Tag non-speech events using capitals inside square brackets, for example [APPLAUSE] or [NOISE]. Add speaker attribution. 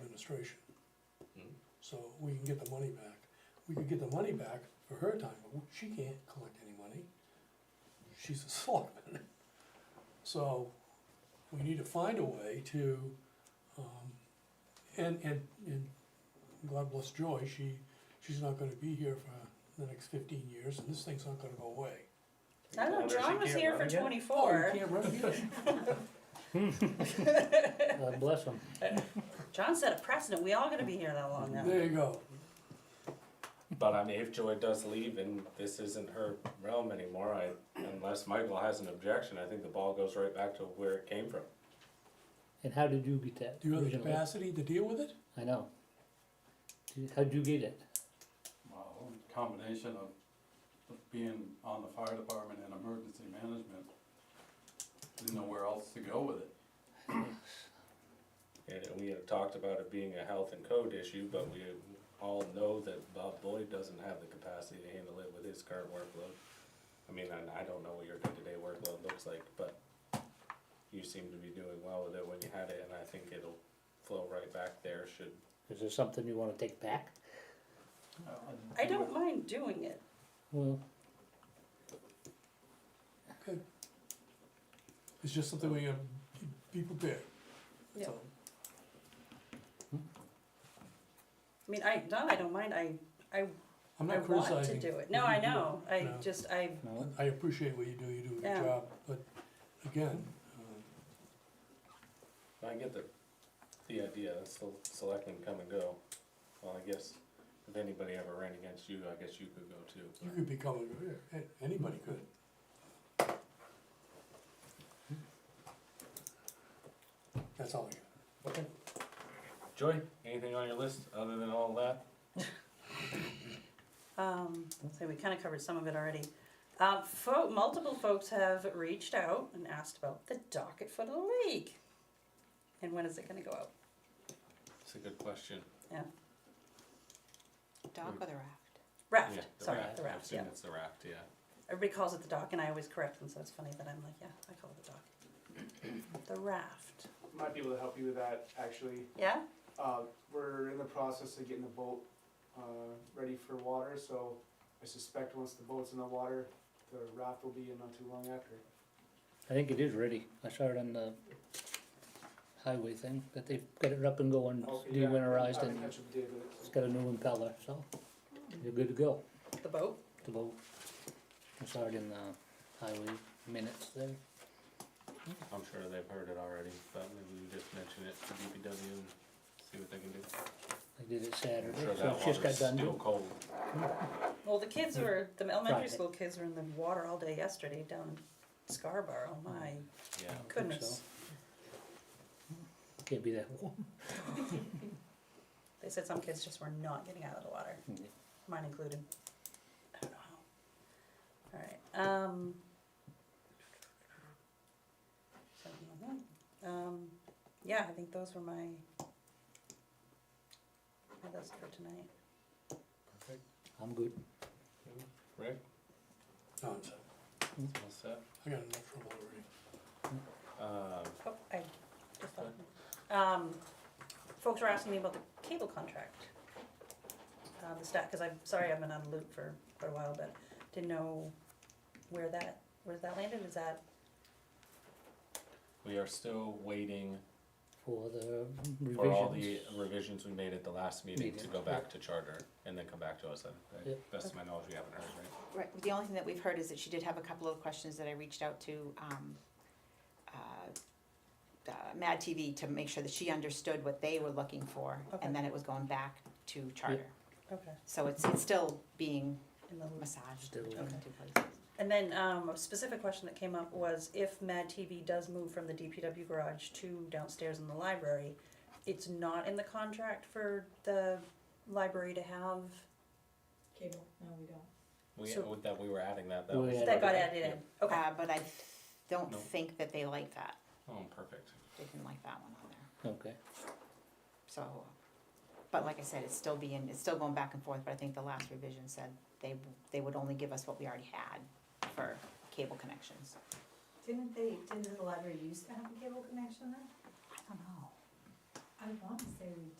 Speaker 1: administration. So we can get the money back. We could get the money back for her time, but she can't collect any money. She's a [LAUGHS] selectman. So we need to find a way to, um, and, and, and God bless Joy, she, she's not gonna be here for the next fifteen years, and this thing's not gonna go away.
Speaker 2: I know,
Speaker 3: Wonder if she
Speaker 2: John was
Speaker 3: can't
Speaker 2: here
Speaker 3: run
Speaker 2: for
Speaker 3: again?
Speaker 2: twenty-four.
Speaker 1: Oh, you can't run again.
Speaker 4: God bless them.
Speaker 2: John set a precedent, we all gonna be here that long now.
Speaker 1: There you go.
Speaker 3: But I mean, if Joy does leave and this isn't her realm anymore, I, unless Michael has an objection, I think the ball goes right back to where it came from.
Speaker 4: And how did you get that
Speaker 1: Do you have the
Speaker 4: originally?
Speaker 1: capacity to deal with it?
Speaker 4: I know. Did- How'd you get it?
Speaker 5: Well, uh, combination of being on the fire department and emergency management, didn't know where else to go with it.
Speaker 3: And we had talked about it being a health and code issue, but we all know that Bob Boyd doesn't have the capacity to handle it with his current workload. I mean, and I don't know what your day-to-day workload looks like, but you seem to be doing well with it when you had it, and I think it'll flow right back there should,
Speaker 4: Is there something you wanna take back?
Speaker 2: I don't mind doing it.
Speaker 4: Well,
Speaker 1: Okay. It's just something we gotta be prepared.
Speaker 2: Yeah.
Speaker 1: So,
Speaker 2: I mean, I, not I don't mind, I, I,
Speaker 1: I'm
Speaker 2: I
Speaker 1: not
Speaker 2: want to
Speaker 1: criticizing.
Speaker 2: do it. No, I know, I
Speaker 1: No.
Speaker 2: just, I,
Speaker 4: no,
Speaker 1: I appreciate what you do, you do a
Speaker 2: Yeah.
Speaker 1: good job, but again, um,
Speaker 3: I get the, the idea, of sel- selectmen come and go. Well, I guess if anybody ever ran against you, I guess you could go too.
Speaker 1: you could be coming, eh, anybody could. That's all I got.
Speaker 3: Okay. Joy, anything on your list other than all that?
Speaker 2: um, so we kinda covered some of it already. Uh, fo- multiple folks have reached out and asked about the docket for the league. And when is it gonna go out?
Speaker 3: It's a good question.
Speaker 6: Dock or the raft?
Speaker 3: Yeah,
Speaker 2: Raft,
Speaker 3: the
Speaker 2: sorry,
Speaker 3: raft.
Speaker 2: the
Speaker 3: I
Speaker 2: raft,
Speaker 3: assume
Speaker 2: yeah.
Speaker 3: it's the raft, yeah.
Speaker 2: Everybody calls it the dock and I always correct them, so it's funny that I'm like, yeah, I call it the dock. [CLEARS THROAT] The raft,
Speaker 7: might be able to help you with that actually.
Speaker 2: yeah?
Speaker 7: Uh, we're in the process of getting the boat uh, ready for water, so I suspect once the boat's in the water, the raft will be in not too long after.
Speaker 4: I think it is ready. I saw it on the highway thing, that they've got it up and going,
Speaker 7: Okay, Oh, yeah,
Speaker 4: de-winterized
Speaker 7: I can
Speaker 4: and
Speaker 7: catch up with David.
Speaker 4: it's got a new impeller, so you're good to go.
Speaker 2: The boat?
Speaker 4: The boat. I saw it in the highway minutes there.
Speaker 3: I'm sure they've heard it already, but maybe we just mention it to DPW and see what they can do.
Speaker 4: I did it Saturday,
Speaker 3: I'm sure
Speaker 4: so
Speaker 3: that
Speaker 4: it's just got
Speaker 3: water's
Speaker 4: done.
Speaker 3: still cold.
Speaker 2: Well, the kids were, the elementary
Speaker 4: Friday.
Speaker 2: school kids were in the water all day yesterday down in Scarborough, my
Speaker 3: Yeah.
Speaker 4: Oh, I think so.
Speaker 2: goodness.
Speaker 4: Can't be that warm.
Speaker 2: They said some kids just were not getting out of the water, mine included. I don't know how. Alright, um. something like that. Um, yeah, I think those were my, my list for tonight.
Speaker 4: I'm good.
Speaker 3: Rick,
Speaker 1: No, it's-
Speaker 3: all set?
Speaker 1: I got enough trouble already.
Speaker 3: Um,
Speaker 2: Oh, I just thought, um, folks were asking me about the cable contract. Uh, the stat, cause I'm, sorry, I've been on the loop for quite a while, but didn't know where that, where that landed, is that,
Speaker 3: we are still waiting
Speaker 4: for the revisions.
Speaker 3: for all the revisions we made at the last meeting to
Speaker 4: Meeting,
Speaker 3: go back to charter and then come back to us. I- I-
Speaker 4: Yeah.
Speaker 3: Best of my knowledge, we haven't heard, right?
Speaker 6: Right, the only thing that we've heard is that she did have a couple of questions that I reached out to, um, uh, uh, Mad TV to make sure that she understood what they were looking for,
Speaker 2: Okay.
Speaker 6: and then it was going back to charter.
Speaker 2: okay,
Speaker 6: So it's, it's still being
Speaker 2: in the loop.
Speaker 6: massaged
Speaker 4: Still.
Speaker 6: between the
Speaker 2: Okay.
Speaker 6: two places.
Speaker 2: And then, um, a specific question that came up was if Mad TV does move from the DPW garage to downstairs in the library, it's not in the contract for the library to have,
Speaker 8: Cable, no, we don't.
Speaker 3: We,
Speaker 2: So-
Speaker 3: with that, we were adding that, that
Speaker 4: We
Speaker 3: was.
Speaker 4: added
Speaker 2: that got
Speaker 3: okay.
Speaker 2: added in,
Speaker 3: Yeah.
Speaker 2: okay.
Speaker 6: Uh, but I don't
Speaker 3: No.
Speaker 6: think that they like that,
Speaker 3: Oh, perfect.
Speaker 6: they didn't like that one on there,
Speaker 3: uh,
Speaker 4: Okay,
Speaker 6: so, but like I said, it's still being, it's still going back and forth, but I think the last revision said they, they would only give us what we already had for cable connections.
Speaker 8: Didn't they, didn't the library used to have a cable connection there?
Speaker 6: I don't know.
Speaker 8: I want to say we